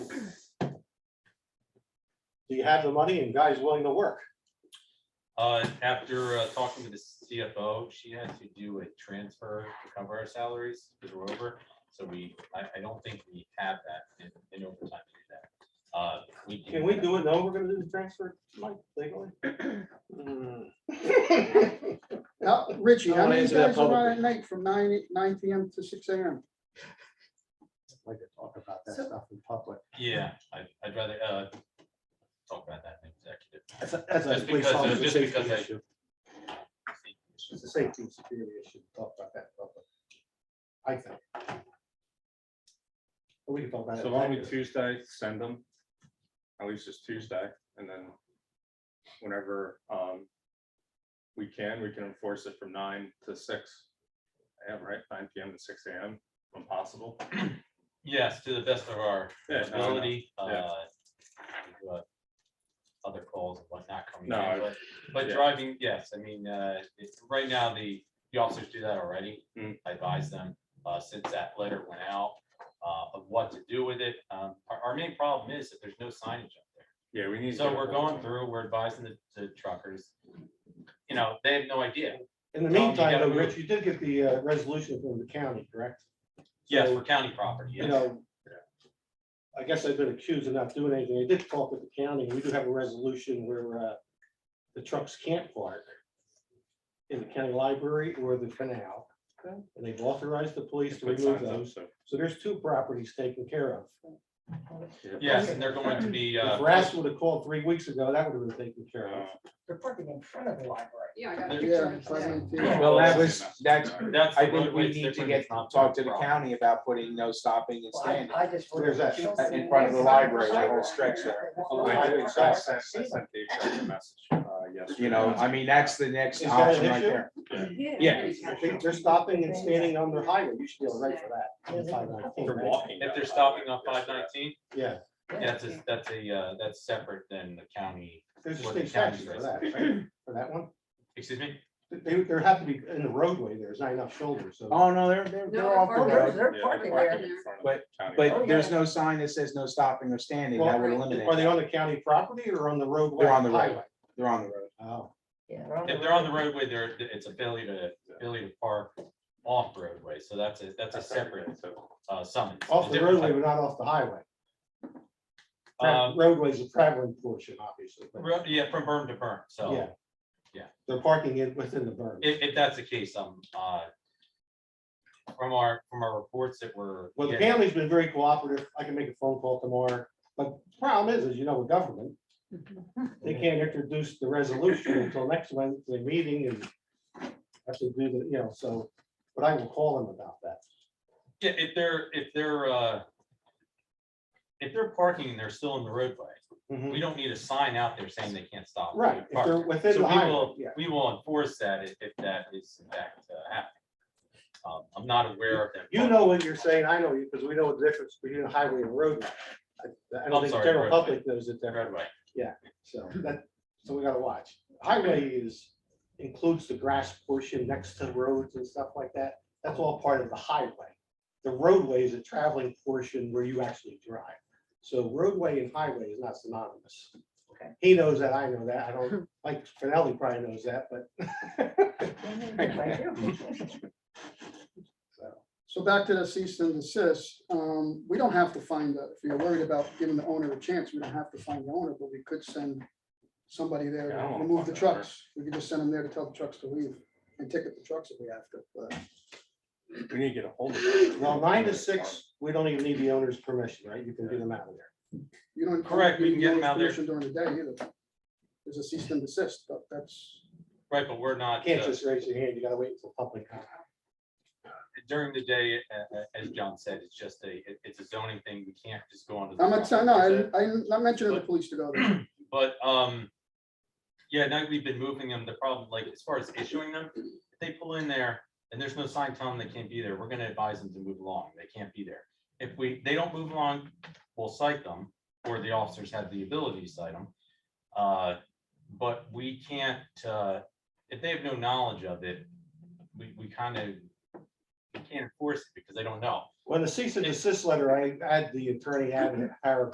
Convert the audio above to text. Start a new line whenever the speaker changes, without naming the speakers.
do you have the money and guys willing to work?
Uh, after uh, talking to the CFO, she had to do a transfer to cover our salaries because we're over. So we, I, I don't think we have that in, in overtime to do that. Uh, we.
Can we do it? No, we're gonna do the transfer like, legally? Hmm.
Now, Richie,
I
how
wanna
many
answer that
guys are on
publicly.
at night from nine, nine PM to six AM?
Like to talk about that
So-
stuff in public.
Yeah, I, I'd rather, uh, talk about that in executive.
That's a, that's a
Just
police
because, uh,
officer
just
safety
because I-
issue. It's a safety and security issue. Talk about that in public. I think. But we can talk about it.
So why don't we
later.
Tuesday, send them? At least it's Tuesday, and then whenever um we can, we can enforce it from nine to six. AM, right? Nine PM to six AM, when possible.
Yes, to the best of our
Yeah, no, no,
ability,
yeah.
uh. we've got Other calls and whatnot coming
No, I-
in, but, but
yeah.
driving, yes, I mean, uh, it's, right now, the, the officers do that already.
Mm.
I advise them, uh, since that letter went out, uh, of what to do with it. Um, our, our main problem is that there's no signage up there.
Yeah, we need. to
So
get a
we're
hold of
going
them.
through, we're advising the, the truckers. You know, they have no idea.
In the
Tom, you
meantime,
gotta
though,
move.
Rich, you did get the uh, resolution from the county, correct?
Yes,
So-
for county property,
you
yes.
know, I guess I've been accused of not doing anything. I did talk with the county. We do have a resolution where uh, the trucks can't park in the county library or the canal. And they've authorized the police to
Put
remove
signs up,
those.
so-
So there's two properties taken care of.
Yes, and they're going to be, uh.
If Rass would have called three weeks ago, that would have been taken care of.
Uh,
They're parking in front of the library.
Yeah, I got a
Yeah,
picture of
Yeah.
it
five
today.
minutes, yeah.
Well, that
Yeah.
was, that's,
That's.
I
the
think
roadway,
we
it's
need to
different,
get,
it's not
talk to the
problem.
county about putting no stopping and
Well, I-
standing
I just.
Where's that?
in front of the library, that whole stretch there.
I- I- I sent- I sent the executive message, uh, yesterday.
You know, I mean, that's the next
Is that an
option right
issue?
there.
I think They're stopping and standing on their highway. You should be all right for that. on
Yeah.
519,
They're
right?
walking.
If
down
they're
the
stopping on
highway, yes,
five
they're-
nineteen,
Yeah,
that's a, that's a, uh, that's separate than the county,
there's a
Well, the
state statute for
county's
that, right? For that one.
excuse me?
They, there have to be in the roadway. There's not enough shoulders, so.
Oh, no, they're, they're,
No,
they're
they're
off the
parking.
road,
They're
Yeah,
parking
they're
there.
parking in front of the county.
but there's
Oh,
no sign that says no stopping or standing. That would
Well,
eliminate,
Are they
that.
on the county property or on the roadway?
They're on the road.
highway?
they're on the road.
Oh,
Yeah.
If they're on the roadway, there, it's a failure to, failure to park off roadway, so that's a, that's a separate,
So,
uh, summons.
off
A
the
different
roadway, but not off the highway.
type. Um,
Roadway's a traveling portion, obviously. but-
ro- yeah, from burn to burn,
Yeah.
so Oh. yeah.
They're parking it within the berm.
if, if that's the case, um, uh, from our, from our reports that were.
Well, the
getting-
county's been very cooperative. I can make a phone call tomorrow. But the problem is, is you know, with government, they can't introduce the resolution until next Wednesday meeting and have to do the, you know, so, but I will call them about that.
Yeah, if they're, if they're, uh, if they're parking and they're still in the roadway,
Mhm.
Mm-hmm.
we don't need a sign out there saying they can't stop.
Right, if
Park.
they're within
So
the
we
highway,
will,
yeah.
we will enforce that if, if that is in fact uh, happening. Um, I'm not aware of that.
You know what you're saying, I know you, because we know the difference between a highway and a roadway. I- I don't
I'm
think the
sorry,
general
roadway.
public knows it there,
Roadway.
so that, so we gotta watch. Highway is, includes the grass portion next to roads and stuff like that, that's all part of the highway. The roadway is a traveling portion where you actually drive, so roadway and highway is not synonymous.
Okay.
He knows that, I know that, I don't, like, Finelli probably knows that, but. So.
So back to the cease and desist, um, we don't have to find, the- if you're worried about giving the owner a chance, we don't have to find the owner, but we could send somebody there,
Yeah, I don't
to
wanna
remove the
find the owner.
trucks. We could just send them there to tell the trucks to leave and ticket the trucks if we have to, but.
We need to get a hold of. them.
Well, nine to six, we don't even need the owner's permission, right? You can do them out of there.
You don't.
Correct, we
you
can get them
don't
out there.
permission During the day either. There's a cease and desist, but that's,
Right, but we're not,
You can't
uh,
just raise your hand, you gotta wait until public comment.
during the day, a- a- as John said, it's just a, it- it's a zoning thing. We can't just go on.
I'm not, saying- no, I, I'm not mentioning the
But-
police to go there.
But, um, yeah, now we've been moving them, the problem, like, as far as issuing them, if they pull in there and there's no sign telling them they can't be there, we're gonna advise them to move along, they can't be there. If we, they don't move along, we'll cite them, or the officers have the ability to cite them. Uh, but we can't, uh, if they have no knowledge of it, we, we kind of, we can't enforce it because they don't know.
When the cease and desist letter, I had the attorney add a paragraph